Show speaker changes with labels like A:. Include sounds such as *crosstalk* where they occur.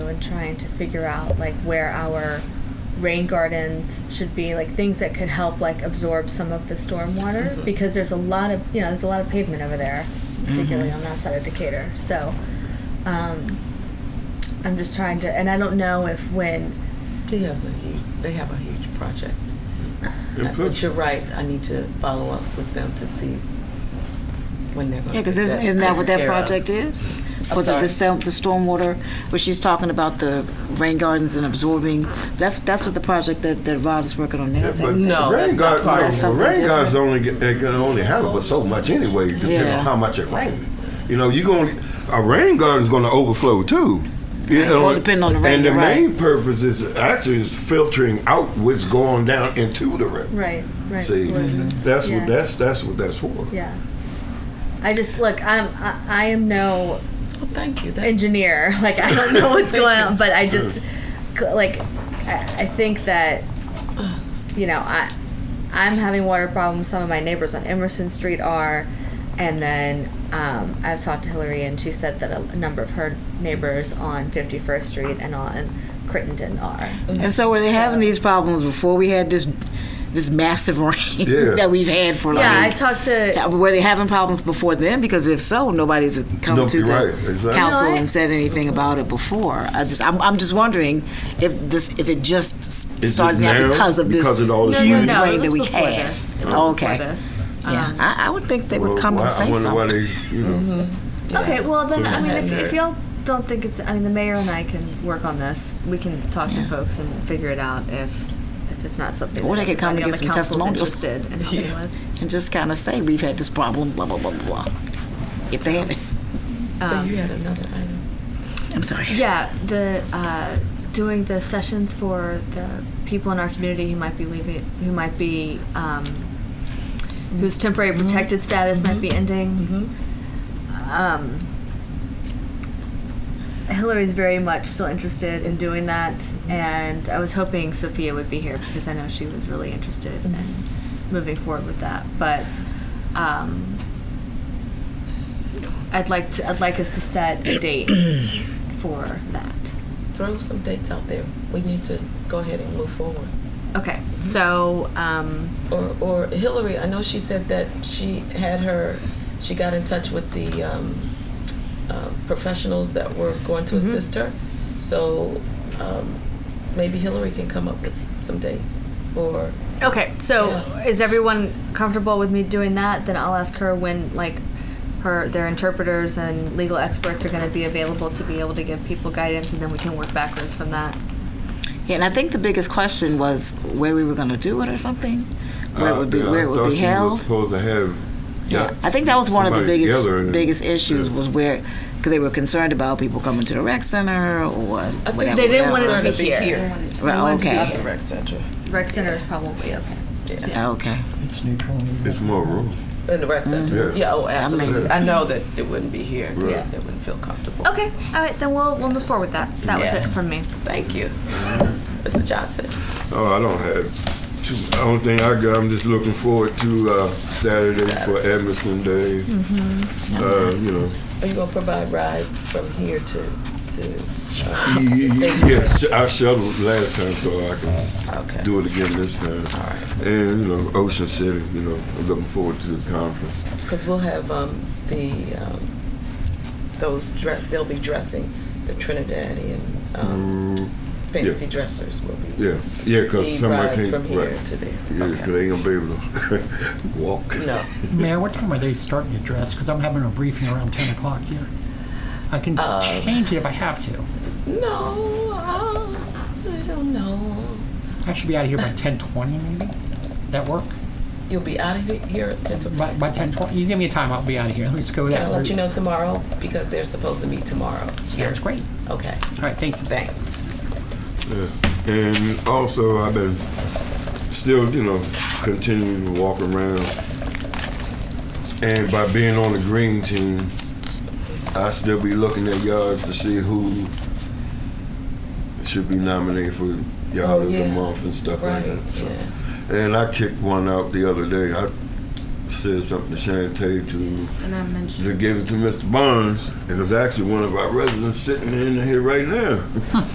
A: trying to figure out like where our rain gardens should be, like things that could help like absorb some of the storm water because there's a lot of you know there's a lot of pavement over there, particularly on that side of Decatur. So um, I'm just trying to, and I don't know if when
B: He has a huge, they have a huge project.
C: It
B: But
C: puts-
B: you're right, I need to follow up with them to see when they're going to.
D: Yeah, because isn't, isn't that what that project is?
B: I'm
D: Was it
B: sorry.
D: the storm, the stormwater, where she's talking about the rain gardens and absorbing? That's, that's what the project that, that Rod is working on now,
C: But
D: is it?
B: No,
C: rain
B: that's not
C: guard,
B: part of
C: no,
D: it.
C: but
D: Something
C: rain guards
D: different.
C: only get, they can only handle but so much anyway, depending
D: Yeah.
C: on how much it rains. You know, you going to a rain garden's going to overflow too. You know,
D: Well, depending on the rain,
C: And the
D: you're right.
C: main purpose is actually is filtering out what's going down into the river.
A: right right
C: See,
A: collisions.
C: that's
A: yeah.
C: what that's that's what that's for.
A: yeah. I just look. I'm. I, I am no
B: Well, thank you. That's-
A: engineer. *laughs* Like I don't know what's going on, but I just like I, I think that you know I I'm having water problems. Some of my neighbors on Emerson Street are, and then um, I've talked to Hillary, and she said that a, number of her neighbors on 51st Street and on Crittenden are.
D: And so were they having these problems before we had this, this massive *laughs* rain
C: Yeah.
D: that we've had for like?
A: yeah, I talked to
D: Yeah, but were they having problems before then? Because if so, nobody's come
C: No,
D: to
C: you're
D: the
C: right, exactly.
D: council
A: No, I-
D: and said anything about it before. I just, I'm, I'm just wondering if this, if it just s-
C: Is it
D: started
C: now?
D: out because of this
C: Because of all this
D: huge
C: rain?
D: rain
C: No,
A: it
D: that
A: was
D: we
A: before
D: had. Oh,
A: this.
D: Okay,
A: before this. Um,
D: yeah, I, I would think they would come
C: why,
D: and say
C: I wonder
D: something. Mm-hmm.
C: why they, you know.
A: Okay, well then, I mean,
B: Yeah.
A: if,
D: uh,
A: if y'all don't think it's, I mean, the mayor and I can work on this. We can talk to
D: Yeah.
A: folks and figure it out if if it's not something.
D: Or
A: that
D: they could come
A: everybody
D: and
A: on the
D: give some
A: council's
D: testimonials.
A: Interested in helping with.
D: and just kind of say we've had this problem, blah blah blah blah. If they haven't,
B: So
A: Um,
D: um,
B: you had another item.
D: *laughs* I'm sorry.
A: Yeah, the uh, doing the sessions for the people in our community who might be leaving, who might be um, whose temporary protected status might be ending. Um, Hillary's very much still interested in doing that, and I was hoping Sophia would be here because I know she was really interested in moving forward with that. But um, I'd like to, I'd like us to set a date for that.
B: Throw some dates out there. We need to go ahead and move forward.
A: Okay, so um,
B: Or, or Hillary, I know she said that she had her, she got in touch with the um, uh, professionals that were going to
D: Mm-hmm.
B: assist her. So um, maybe Hillary can come up with some dates. Or
A: okay, so
B: Yeah.
A: is everyone comfortable with me doing that? Then I'll ask her when like her their interpreters and legal experts are going to be available to be able to give people guidance, and then we can work backwards from that.
D: Yeah, and I think the biggest question was where we were going to do it or something, where it
C: Uh,
D: would be,
C: yeah,
D: where
C: I
D: it would
C: thought
D: be
C: she was
D: held.
C: supposed to have.
D: Yeah, I think that was one of the
C: somebody
D: biggest
C: together and-
D: biggest issues
C: Yeah.
D: was where because they were concerned about people coming to the rec center or what.
B: think
D: whatever,
A: They didn't want it
D: whatever.
A: to be
B: Concerned to be
A: here.
B: here.
D: Right,
B: Not
D: okay,
B: the rec center.
A: Rec center is probably okay.
D: okay.
E: It's neutral.
C: It's more room.
B: In the rec center.
C: Yeah.
B: Yeah. oh, absolutely.
C: mean-
B: I know that it wouldn't be here.
C: Right.
B: Yeah, they wouldn't feel comfortable.
A: Okay, all right, then we'll we'll move forward with that. That
B: Yeah.
A: was it from me.
B: Thank you.
C: Mm-hmm.
B: Mr. Johnson.
C: Oh, I don't have. Too, I don't think I got. I'm just looking forward to uh, Saturday for Emerson Day. Uh, you know,
B: Are you going to provide rides from here to, to uh,
C: y- y-
B: Thank you.
C: yeah, sh- I shuttled last time, so I can
B: okay.
C: do it again this time. And you know, Ocean City. You know, I'm looking forward to the conference.
B: Because we'll have um, the, um, those, dre- they'll be dressing the Trinidadian um,
C: Mm,
B: fancy dressers will be.
C: yeah, yeah, because
B: The
C: somebody
B: rides from
C: can't.
B: here
C: right.
B: to there.
C: Yeah, 'cause
B: Okay.
C: they ain't gonna be able to *laughs* walk.
B: No.
E: Mayor, what time are they starting to dress? Because I'm having a briefing around 10 o'clock here. I can
B: Uh,
E: change it if I have to.
B: No, uh, I don't know.
E: I should be out of here by 10:20 maybe? That work?
B: You'll be out of here at 10 to
E: By, by 10:20? You give me a time, I'll be out of here. Let's go
B: Can I
E: that
B: let you
E: route.
B: know tomorrow? Because they're supposed to meet tomorrow.
E: Sounds great.
B: Okay,
E: All right, thank you.
B: thanks.
C: Yeah. And also, I've been still, you know, continuing to walk around. And by being on the green team, I still be looking at yards to see who should be nominated for yard
B: Oh,
C: of the
B: yeah.
C: month and stuff
B: Right,
C: like that. So.
B: yeah.
C: And I kicked one out the other day. I said something to Shantae to
F: And I mentioned
C: to give it to Mr. Barnes. It was actually one of our residents sitting in here right now.